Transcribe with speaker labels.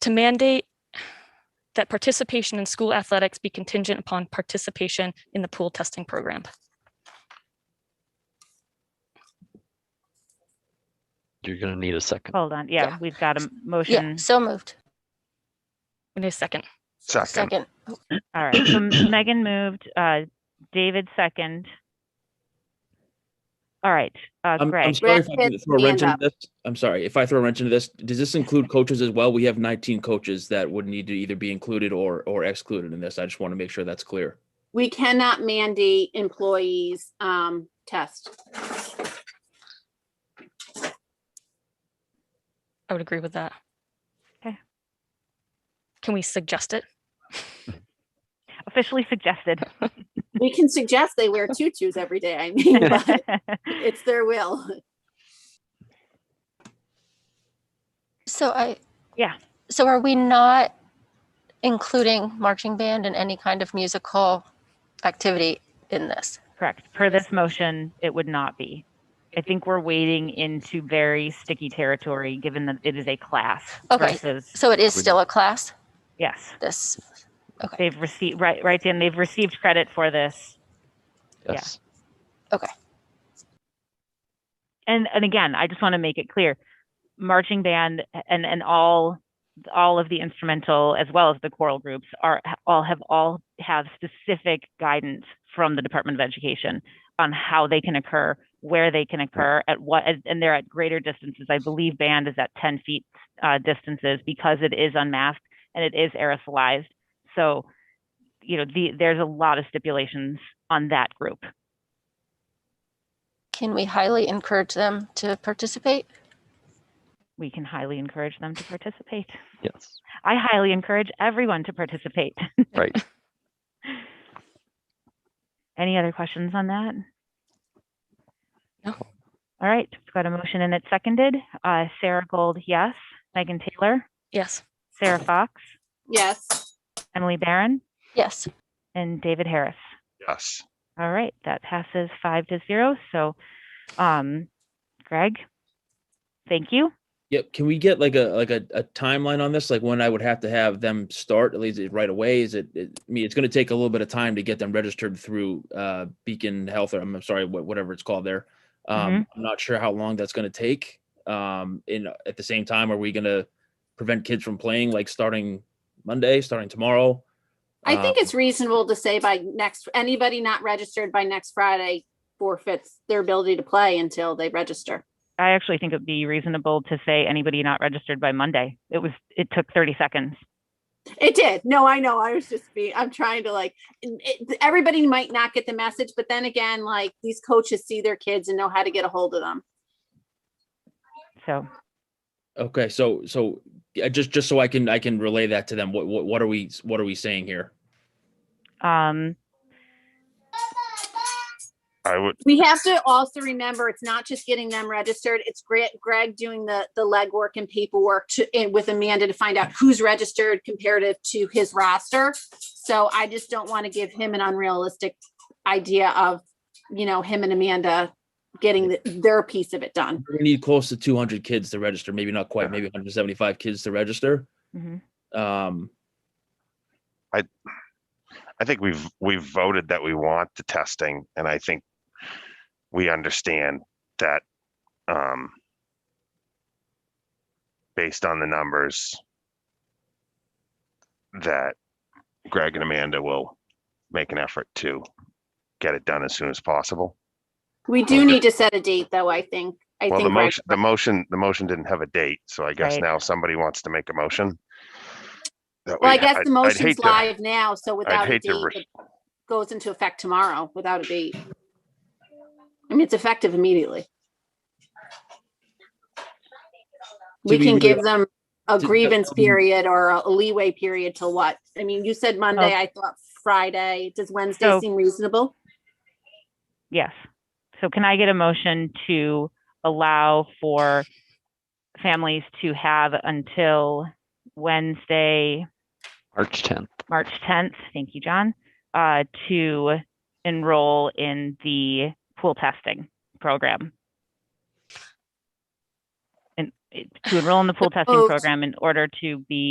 Speaker 1: to mandate that participation in school athletics be contingent upon participation in the pool testing program.
Speaker 2: You're gonna need a second.
Speaker 3: Hold on, yeah,
Speaker 4: Yeah.
Speaker 3: we've got a
Speaker 4: Yeah,
Speaker 3: motion.
Speaker 4: so moved.
Speaker 1: We need a second.
Speaker 5: Second.
Speaker 4: Second.
Speaker 3: All right, so Megan moved, uh, David second. All right, uh,
Speaker 6: I'm, I'm
Speaker 3: Greg,
Speaker 6: sorry if I
Speaker 7: Greg,
Speaker 6: can throw a wrench
Speaker 7: hand
Speaker 6: into this. I'm sorry if I throw a wrench into this. Does this include coaches as well? We have 19 coaches that would need to either be included or or excluded in this. I just want to make sure that's clear.
Speaker 7: We cannot mandate employees um test.
Speaker 1: I would agree with that.
Speaker 3: Okay.
Speaker 1: Can we suggest it?
Speaker 3: officially suggested.
Speaker 7: We can suggest they wear tutus every day, I mean, but it's their will.
Speaker 4: So I.
Speaker 3: Yeah.
Speaker 4: So are we not including marching band and any kind of musical activity in this?
Speaker 3: Correct. Per this motion, it would not be. I think we're wading into very sticky territory, given that it is a class
Speaker 4: Okay.
Speaker 3: versus,
Speaker 4: So it is
Speaker 5: Would-
Speaker 4: still a class,
Speaker 3: yes.
Speaker 4: this,
Speaker 3: They've received, right, right, Dan, they've received credit for this. Yeah.
Speaker 2: Yes.
Speaker 3: And, and again, I just want to make it clear, marching band and, and all, all of the instrumental as well as the choral groups are, all have, all have specific guidance from the Department of Education on how they can occur, where they can occur, at what, and- and they're at greater distances. I believe band is at 10 feet uh, distances because it is unmasked and it is aerosolized. So, you know, the, there's a lot of stipulations on that group.
Speaker 4: can we highly encourage them to participate?
Speaker 3: We can highly encourage them to participate.
Speaker 2: Yes.
Speaker 3: I highly encourage everyone to participate.
Speaker 2: Right.
Speaker 3: Any other questions on that?
Speaker 1: No.
Speaker 3: All right, we've got a motion and it's seconded. Uh, Sarah Gold, yes. Megan Taylor,
Speaker 1: Yes.
Speaker 3: Sarah Fox,
Speaker 7: Yes,
Speaker 3: Emily Barron,
Speaker 4: Yes.
Speaker 3: and David Harris.
Speaker 5: Yes.
Speaker 3: All right, that passes five to zero. So, um, Greg, thank you.
Speaker 6: Yep. Can we get like a like a, a timeline on this? Like when I would have to have them start at least it right away? Is it, it I mean it's going to take a little bit of time to get them registered through uh, Beacon Health or I'm sorry wha- whatever it's called there. Um,
Speaker 7: Mm-hmm.
Speaker 6: I'm not sure how long that's going to take. Um, and at the same time, are we going to prevent kids from playing like starting Monday, starting tomorrow?
Speaker 7: I think
Speaker 6: Um,
Speaker 7: it's reasonable to say by next, anybody not registered by next Friday forfeits their ability to play until they register.
Speaker 3: I actually think it would be reasonable to say anybody not registered by Monday. It was, it took 30 seconds.
Speaker 7: It did. No, I know. I was just being, I'm trying to like, it- everybody might not get the message, but then again, like these coaches see their kids and know how to get a hold of them.
Speaker 3: So,
Speaker 6: Okay, so so yeah, just just so I can I can relay that to them. What what, what are we what are we saying here?
Speaker 3: um,
Speaker 5: I would,
Speaker 7: We have to also remember, it's not just getting them registered. It's Greg, Greg doing the, the legwork and paperwork to, and with Amanda to find out who's registered comparative to his roster. So I just don't want to give him an unrealistic idea of, you know, him and Amanda getting the- their piece of it done.
Speaker 6: We need close to 200 kids to register. Maybe not quite. Maybe 175 kids to register.
Speaker 3: mhm.
Speaker 6: Um,
Speaker 5: I think we've, we've voted that we want the testing and I think we understand that, um, based on the numbers that Greg and Amanda will make an effort to get it done as soon as possible.
Speaker 7: We do need to set a date though, I think. I
Speaker 5: Well, the
Speaker 7: think Greg-
Speaker 5: motion, the motion, the motion didn't have a date, so I guess
Speaker 3: Right.
Speaker 5: now somebody wants to make a motion. that
Speaker 7: Well,
Speaker 5: we-
Speaker 7: I guess
Speaker 5: I'd-
Speaker 7: the
Speaker 5: I'd
Speaker 7: motion's
Speaker 5: hate to-
Speaker 7: live now, so
Speaker 5: I'd
Speaker 7: without a
Speaker 5: hate
Speaker 7: date,
Speaker 5: to, res-
Speaker 7: it goes into effect tomorrow without a date. I mean, it's effective immediately. We
Speaker 6: we
Speaker 7: can
Speaker 6: really-
Speaker 7: give them a
Speaker 6: Did-
Speaker 7: grievance
Speaker 6: um,
Speaker 7: period or a leeway period till what? I mean, you said Monday,
Speaker 3: Oh.
Speaker 7: I thought Friday. Does Wednesday
Speaker 3: So-
Speaker 7: seem reasonable?
Speaker 3: Yes. So can I get a motion to allow for families to have until Wednesday,
Speaker 2: March tenth.
Speaker 3: March 10th, thank you, John, uh, to enroll in the pool testing program? And it- to enroll in the pool testing
Speaker 7: Opposed.
Speaker 3: program in order to be